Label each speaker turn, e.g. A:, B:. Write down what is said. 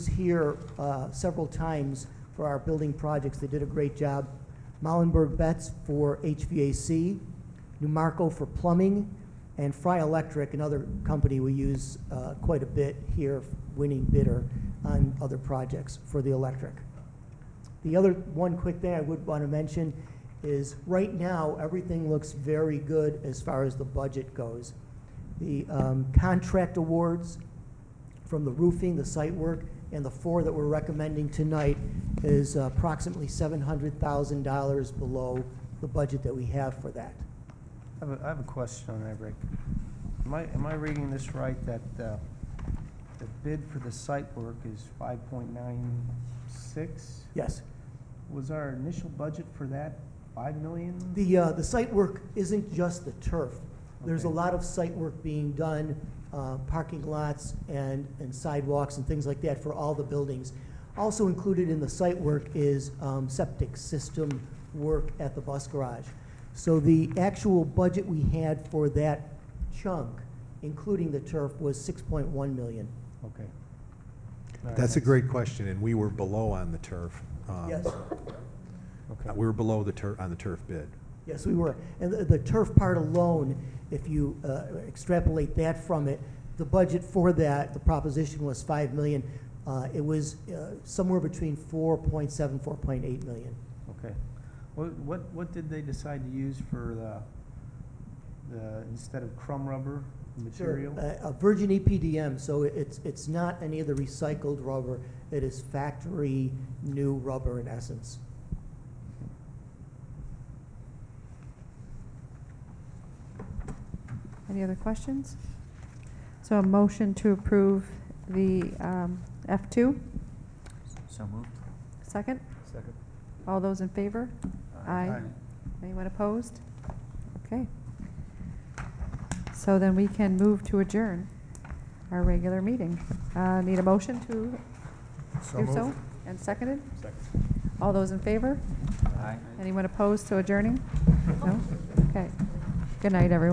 A: was here uh, several times for our building projects. They did a great job. Mollenberg Betts for HVAC, Numarco for plumbing, and Fry Electric, another company we use uh, quite a bit here, winning bidder on other projects for the electric. The other one quick thing I would want to mention is, right now, everything looks very good as far as the budget goes. The um, contract awards from the roofing, the site work, and the four that we're recommending tonight is approximately $700,000 below the budget that we have for that.
B: I have a, I have a question on that, Rick. Am I, am I reading this right, that, uh, the bid for the site work is five point nine six?
A: Yes.
B: Was our initial budget for that five million?
A: The, uh, the site work isn't just the turf. There's a
B: Okay.
A: lot of site work being done, uh, parking lots and, and sidewalks and things like that for all the buildings. Also included in the site work is, um, septic system work at the bus garage. So the actual budget we had for that chunk, including the turf, was six point one million.
B: Okay. All right,
C: That's a great question, and we were below on the turf. um,
A: Yes,
B: Okay.
C: We were below the turf, on the turf bid.
A: yes, we were. And the, the turf part alone, if you, uh, extrapolate that from it, the budget for that, the proposition was five million. Uh, it was, uh, somewhere between four point seven, four point eight million.
B: Okay. What, what, what did they decide to use for the, the, instead of crumb rubber material?
A: Uh, A virgin EPDM, so it- it's, it's not any of the recycled rubber, it is factory new rubber in essence.
D: Any other questions? So a motion to approve the um, F2,
E: So moved.
D: second?
E: Second.
D: All those in favor? Aye. Anyone opposed? Okay. So then we can move to adjourn our regular meeting. Uh, Need a motion to do so? And seconded? All those in favor?
E: Aye.
D: Anyone opposed to adjourning? No? Okay. Good night, everyone.